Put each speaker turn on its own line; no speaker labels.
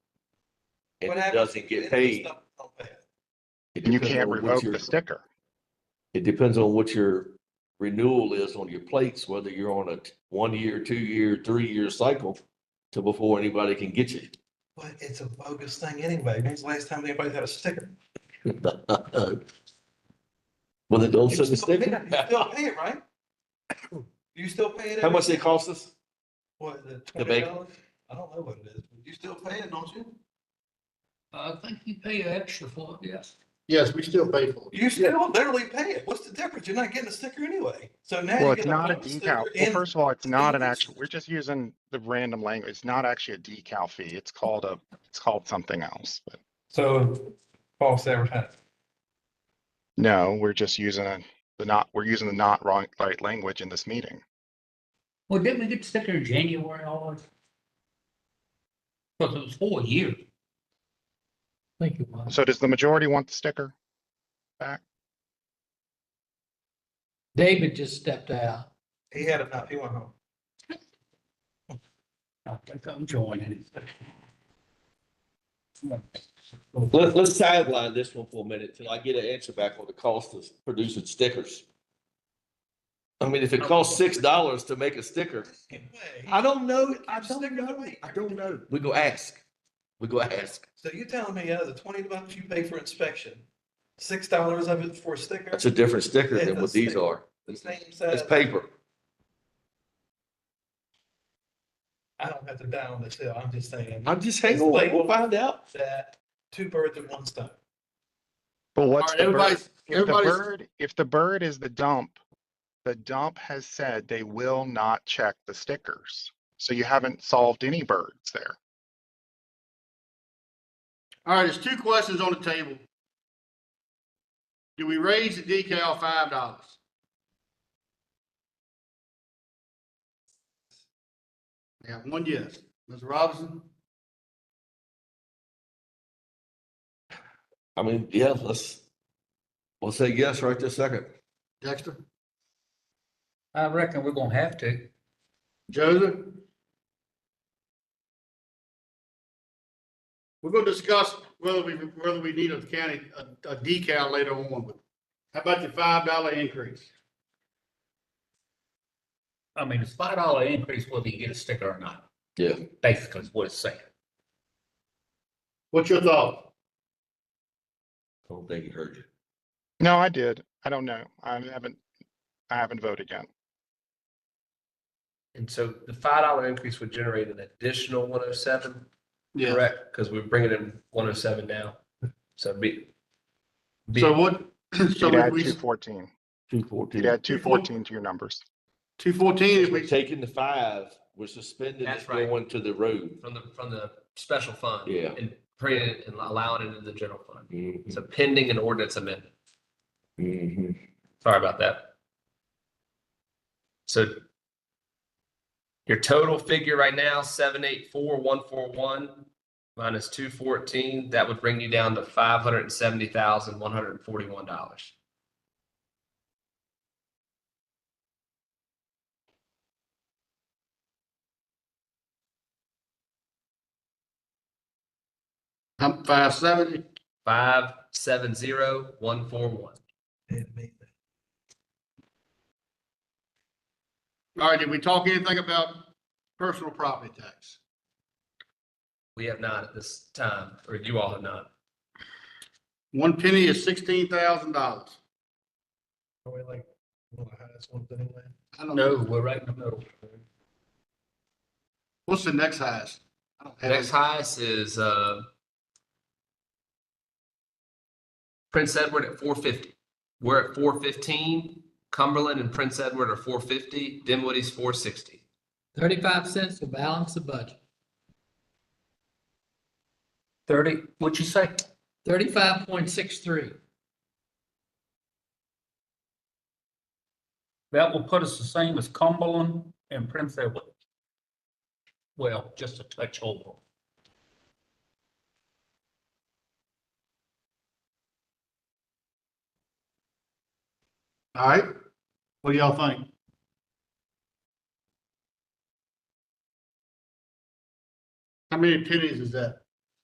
and
What
it
happens
doesn't
if you
get
end up
paid.
stuck with something?
it
And you
depends
can't
on what
revoke
your-
the sticker.
It depends on what your renewal is on your plates, whether you're on a t- one-year, two-year, three-year cycle to before anybody can get you.
But it's a bogus thing anyway. When's the last time anybody had a sticker?
Well, they don't
You
send Oh, the
still pay
sticker.
it, you still pay it, right? You still pay it?
How
every-
much they cost us?
What, is it
The bank?
$20? I don't know what it is. but You still pay it, don't you?
Uh, I think you pay extra for it, yes.
Yes, we still pay for it.
You still literally pay it. What's the difference? You're not getting a sticker anyway. So now.
Well,
you
it's
get
not a
bonus
decal.
sticker
Well,
and-
first of all, it's not an
it's-
actual, we're just using the random language. It's not actually a decal fee. It's called a, it's called something else, but
So false advertising.
no, we're just using a- the not, we're using the not wrong, right language in this meeting.
Well, didn't we get sticker in January always? Because it was four years. Thank you, Bob.
So does the majority want the sticker?
David just stepped out.
He had enough. He went home.
I think I'm joining.
Let, let's sideline this one for a minute till I get an answer back on the cost of producing stickers. I mean, if it costs six dollars to make a sticker,
Anyway,
I don't know, I
Just
don't
stick it
know,
away.
I don't know. We go ask, we go ask.
So you're telling me out of the twenty bucks you pay for inspection, six dollars of it for a sticker,
That's a different sticker
Yeah,
than what
that's
these
sticker.
are.
the
It's
same size?
paper.
I don't have to die on this hill. I'm just saying
I'm just hanging away, we'll find out.
that two birds with one stone.
But
All
what's the
right,
bird?
everybody's,
If the
everybody's,
bird, if the bird is the dump, the dump has said they will not check the stickers. So you haven't solved any birds there.
all right, there's two questions on the table. Do we raise the decal five dollars? We have one yes. Mr. Robinson?
I mean, yeah, let's, we'll say yes right this second.
Dexter?
I reckon we're gonna have to.
Joseph? We're gonna discuss whether we, whether we need a county, a- a decal later on, but how about the five dollar increase?
I mean, it's five dollar increase whether you get a sticker or not,
Yeah.
basically is what it's saying.
What's your thought?
Don't think you heard you.
No, I did. I don't know. I haven't, I haven't voted yet.
And so the five dollar increase would generate an additional one oh seven,
Yeah,
correct? Because we're bringing in one oh seven now, so it'd be. be-
so what, so
You'd add
we,
two fourteen.
Two
You'd
fourteen.
add two fourteen to your numbers.
two fourteen,
We're
we,
taking the five, we're suspending it
That's right.
going to the road.
From the, from the special fund.
Yeah. Hmm.
And bringing it and allowing it into the general fund.
Mm-hmm.
So pending an ordinance amendment.
Mhm.
Sorry about that. So your total figure right now, seven, eight, four, one, four, one, minus two fourteen, that would bring you down to five hundred and seventy thousand, one hundred and forty-one dollars.
I'm five seventy,
Five, seven, zero, one, four, one.
It means
all right, did we talk anything about personal property tax?
We have not at this time, or you all have not.
One penny is sixteen thousand dollars.
Are we like, well, that's one thing, man.
I don't know,
No, we're right in the middle.
what's the next highest? I don't have
Next
it.
highest is, uh, Prince Edward at four fifty. We're at four fifteen. Cumberland and Prince Edward are four fifty. Dinwiddie's four sixty.
Thirty-five cents to balance the budget.
Thirty, what'd you say?
Thirty-five point six-three.
That will put us the same as Cumberland and Prince Edward. Well, just a touch over.
All right, what do y'all think? How many pennies is that?